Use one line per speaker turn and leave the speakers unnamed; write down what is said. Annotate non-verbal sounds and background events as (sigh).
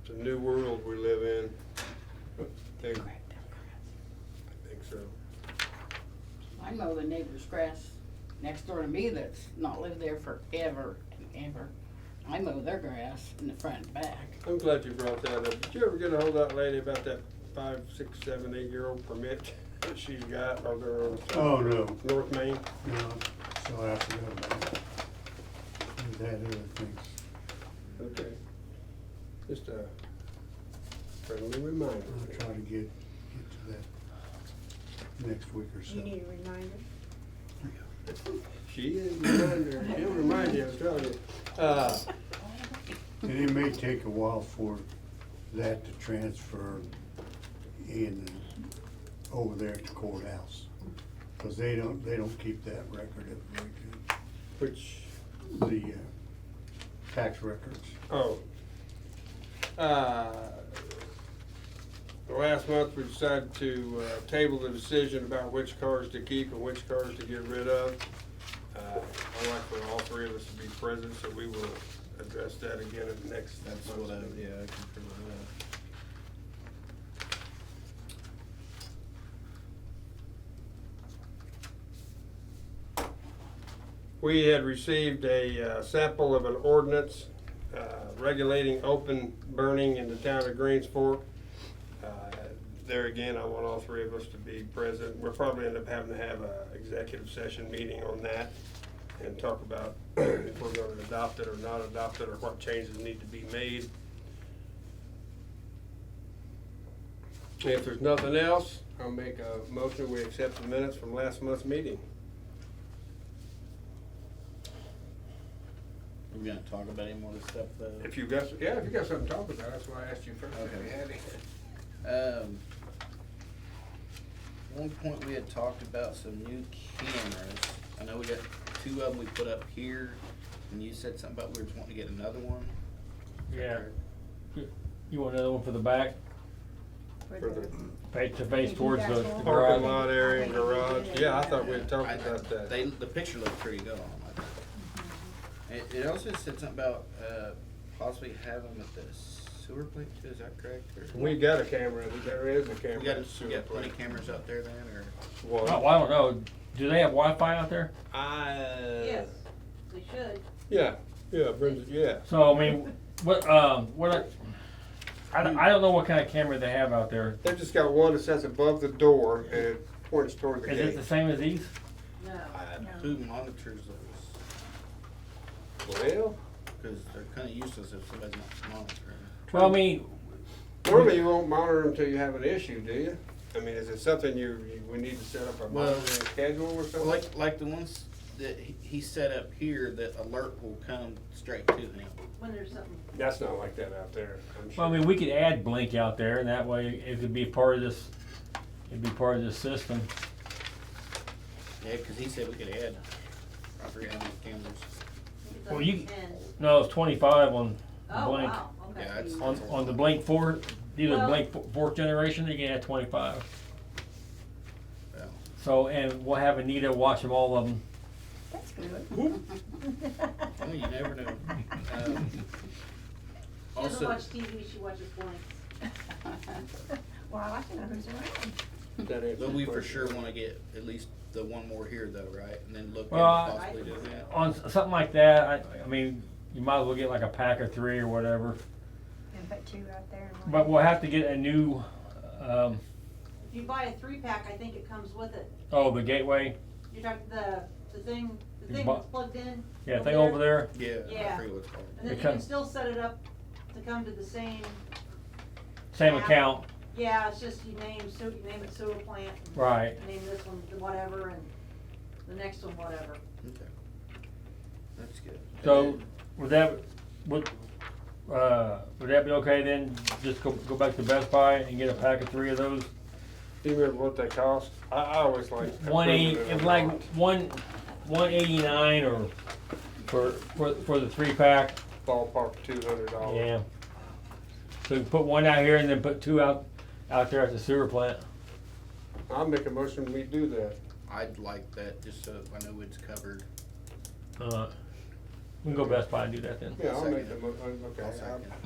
It's a new world we live in. I think, I think so.
I mow the neighbor's grass next door to me that's not lived there forever and ever. I mow their grass in the front and back.
I'm glad you brought that up. Did you ever get a hold of that lady about that five, six, seven, eight-year-old permit that she's got over on
Oh, no,
North Main?
no, so I forgot about that. We had other things.
Okay. Just a friendly reminder.
I'll try to get, get to that next week or so.
You need a reminder?
She is a reminder. She'll remind you, I'm telling you. Uh,
And it may take a while for that to transfer in, over there at the courthouse. Cause they don't, they don't keep that record of, very
Which,
good. the, uh, tax records.
oh. Uh, The last month, we decided to uh, table the decision about which cars to keep and which cars to get rid of. Uh, I'd like for all three of us to be present, so we will address that again at the next.
That's what I,
month's meeting.
yeah, I can figure that
We had received a uh, sample of an ordinance uh, regulating open burning in the town of Greens Fork. Uh, There again, I want all three of us to be present. We'll probably end up having to have a executive session meeting on that and talk about (clears throat) if we're gonna adopt it or not adopt it, or what changes need to be made. If there's nothing else, I'll make a motion, we accept the minutes from last month's meeting.
out. We gonna talk about any more of this stuff
If
though?
you got, yeah, if you got something to talk about, that's why I asked you first if you
Okay.
had any.
Um, one point we had talked about some new cameras. I know we got two of them we put up here, and you said something about we were wanting to get another one.
Yeah. You want another one for the back,
For the
face to face
You
towards
guys
the
want-
the
Parking
garage?
lot area and garage, yeah, I thought we had talked
I-
about
They,
that.
the picture looked pretty good on them, I think. It, it also said something about, uh, possibly have them at the sewer plant too, is that correct? or-
We got a camera, there is a
We
camera.
got,
at the
we
sewer
got plenty
plant.
of cameras out there then, or?
Oh,
Well,
I don't know. Do they have Wi-Fi out there?
Uh.
Yes, we should.
yeah, yeah, Brenda, yeah.
So I mean, what um what? are- I, don't- I don't know what kind of camera they have out there.
They've just got one that says above the door and it points toward the
Is it
gate.
the same as these?
No.
Uh,
No.
Who monitors those?
Well,
Because they're kind of useless if somebody's not monitoring.
Well, I mean,
normally you won't monitor until you have an issue, do you? I mean, is it something you, you- we need to set up a
Well-
monitoring schedule or
Well,
something?
like, like the ones that he- he set up here, that alert will come straight to him.
When there's something,
That's not like that out there, I'm sure.
well, I mean, we could add Blink out there, and that way it could be part of this. It'd be part of this system.
Yeah, because he said we could add, I forget how many cameras.
it's
Well,
up
you-
to ten.
No, it's twenty-five on
Oh,
Blank.
wow, okay.
Yeah, it's-
on on the Blink four, either
Well-
Blink fo- fourth generation. You can add twenty-five.
Well,
So and we'll have Anita watch them all of them.
That's good. (laughs)
well, you never
(laughs)
know. Um,
She doesn't
Also,
watch TV, she watches blanks.
(laughs)
Well, I like to know who's around.
That answers
but we for
your
sure
question.
want to get at least the one more here though, right? And then look at
Well, I-
possibly doing that.
on s- something like that, I, I mean, you might as well get like a pack of three or whatever.
And put two out there. and one-
But we'll have to get a new, um,
If you buy a three-pack, I think it comes with it.
oh, the gateway,
You're talking, the, the thing, the
You
thing
bu-
that's plugged in.
yeah, thing over there.
Yeah, I
Yeah.
forget what it's called.
And then
It
you can
comes-
still set it up to come to the same,
Same
Yeah.
account,
yeah, it's just you name, so you name it sewer plant. and
right?
Name this one whatever and the next one whatever.
Okay. That's good. And
So
then-
would that would uh, would that be okay then? Just go go back to Best Buy and get a pack of three of those.
Do you remember what they cost? I, I always like.
One eighty,
improving it
it's
a
like
lot.
one one eighty nine or for for for the three pack.
Ballpark two hundred dollars.
Yeah. So you put one out here and then put two out out there at the sewer plant.
I'll make a motion, we do that.
I'd like that, just so I know it's covered.
Uh, we can go Best Buy and do that then.
Yeah, I'll make
Second.
the mo, uh, okay.
I'll second.
I'll-